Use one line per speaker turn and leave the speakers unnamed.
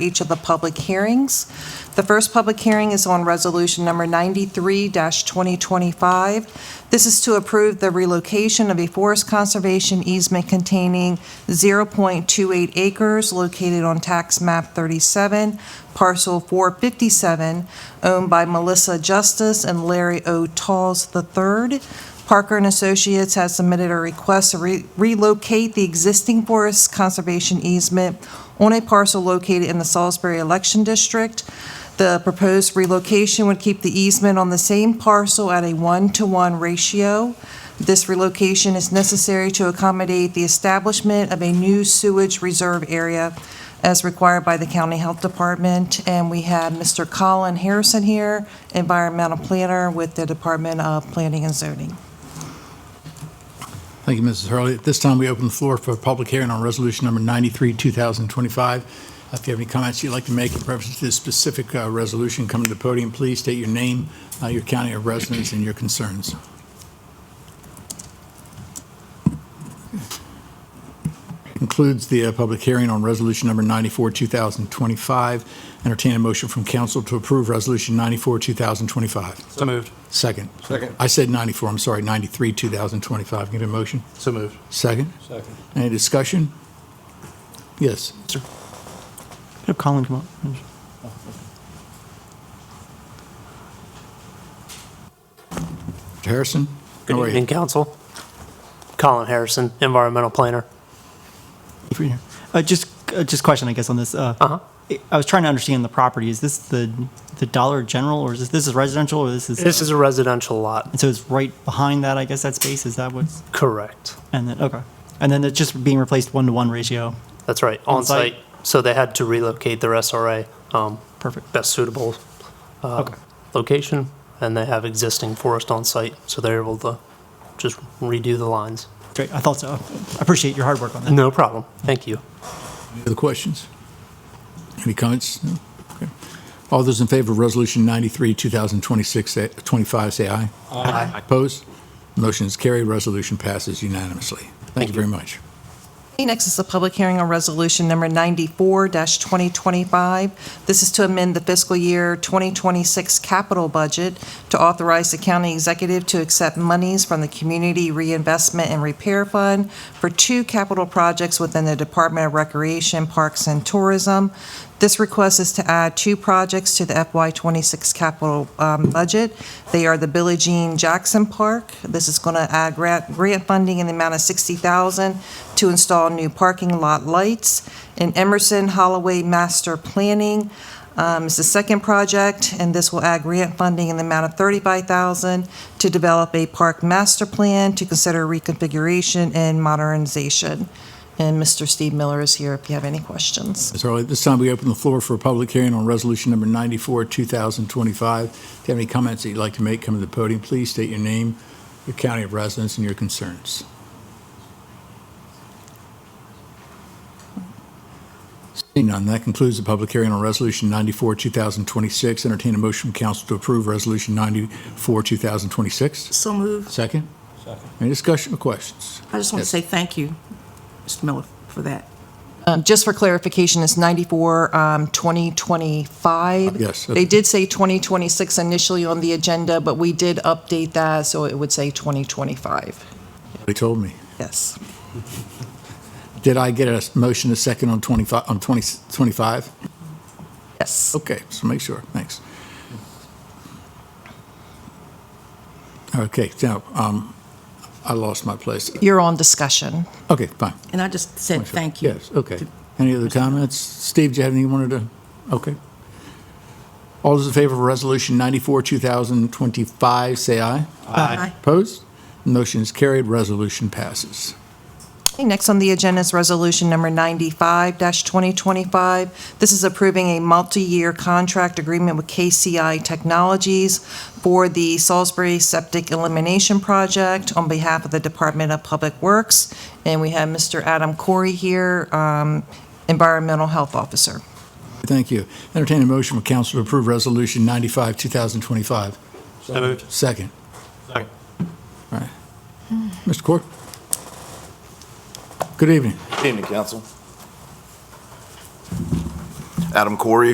each of the public hearings. The first public hearing is on Resolution Number 93-2025. This is to approve the relocation of a forest conservation easement containing 0.28 acres located on Tax Map 37, Parcel 457, owned by Melissa Justice and Larry O. Talls III. Parker and Associates has submitted a request to re- relocate the existing forest conservation easement on a parcel located in the Salisbury Election District. The proposed relocation would keep the easement on the same parcel at a one-to-one ratio. This relocation is necessary to accommodate the establishment of a new sewage reserve area as required by the County Health Department. And we have Mr. Colin Harrison here, environmental planner with the Department of Planning and Zoning.
Thank you, Mrs. Hurley. At this time, we open the floor for a public hearing on resolution number 93, 2025. If you have any comments you'd like to make in reference to this specific uh, resolution, come to the podium, please state your name, uh, your county of residence, and your concerns. Concludes the uh, public hearing on resolution number 94, 2025. Entertain a motion from council to approve resolution 94, 2025.
So moved.
Second.
Second.
I said 94, I'm sorry, 93, 2025. Can I Get a motion?
So moved.
Second.
Second.
Any discussion? Yes.
Have Colin come up.
Mr. Harrison?
Good
How are you?
evening, council. Colin Harrison, environmental planner.
If you're here. Uh, just, uh, just question, I guess, on this. Uh,
Uh-huh.
I- I was trying to understand the property. Is this the the Dollar General, or is this this is residential, or this is
This is a residential lot.
And so it's right behind that, I guess, that space. Is that what's?
Correct.
And then okay, and then it's just being replaced one to one ratio.
That's right, on
On-site.
site. So they had to relocate their SRA, um,
Perfect.
best suitable uh,
Okay.
location, and they have existing forest on site, so they're able to just redo the lines.
Great. I thought so. I appreciate your hard work on that.
No problem. Thank you.
Any other questions? Any comments? No? Okay. All those in favor of Resolution 93, 2026, eh, 25, say aye. Aye. Opposed? Motion is carried. Resolution passes unanimously. Thank you very much.
Okay, Next is the public hearing on resolution number 94-2025. This is to amend the fiscal year 2026 capital budget to authorize the county executive to accept monies from the Community Reinvestment and Repair Fund for two capital projects within the Department of Recreation, Parks, and Tourism. This request is to add two projects to the FY26 capital um, budget. They are the Billie Jean Jackson Park. This is going to add grant, grant funding in the amount of $60,000 to install new parking lot lights. And Emerson Holloway Master Planning um, is the second project, and this will add grant funding in the amount of $35,000 to develop a park master plan to consider reconfiguration and modernization. And Mr. Steve Miller is here if you have any questions.
Ms. Hurley, at this time, we open the floor for a public hearing on Resolution Number 94, 2025. If you have any comments that you'd like to make, come to the podium. Please state your name, your county of residence, and your concerns. Seeing none, that concludes the public hearing on Resolution 94, 2026. Entertain a motion from council to approve Resolution 94, 2026.
So moved.
Second? Second. Any discussion or questions?
I just want
Yes.
to say thank you, Mr. Miller, for that.
Um, Just for clarification, it's 94, um, 2025.
Yes, okay.
They did say 2026 initially on the agenda, but we did update that, so it would say 2025.
They told me.
Yes.
Did I get a motion a second on 25, on 20 25?
Yes.
Okay, so make sure, thanks. Okay, now, um, I lost my place.
You're on discussion.
Okay, fine.
And I just said Uh, thank you.
Yes, okay. Any other comments? Steve, do you have anything you wanted to, okay. All those in favor of Resolution 94, 2025, say aye.
Aye.
Opposed? Motion is carried, resolution passes.
Okay, Next on the agenda is Resolution Number 95-2025. This is approving a multi-year contract agreement with KCI Technologies for the Salisbury Septic Elimination Project on behalf of the Department of Public Works. And we have Mr. Adam Corey here, um, Environmental Health Officer.
Thank you. Entertain a motion from council to approve Resolution 95, 2025.
So moved.
Second.
Second.
All right. Mr. Corr? Good evening.
Evening, council. Adam Corey,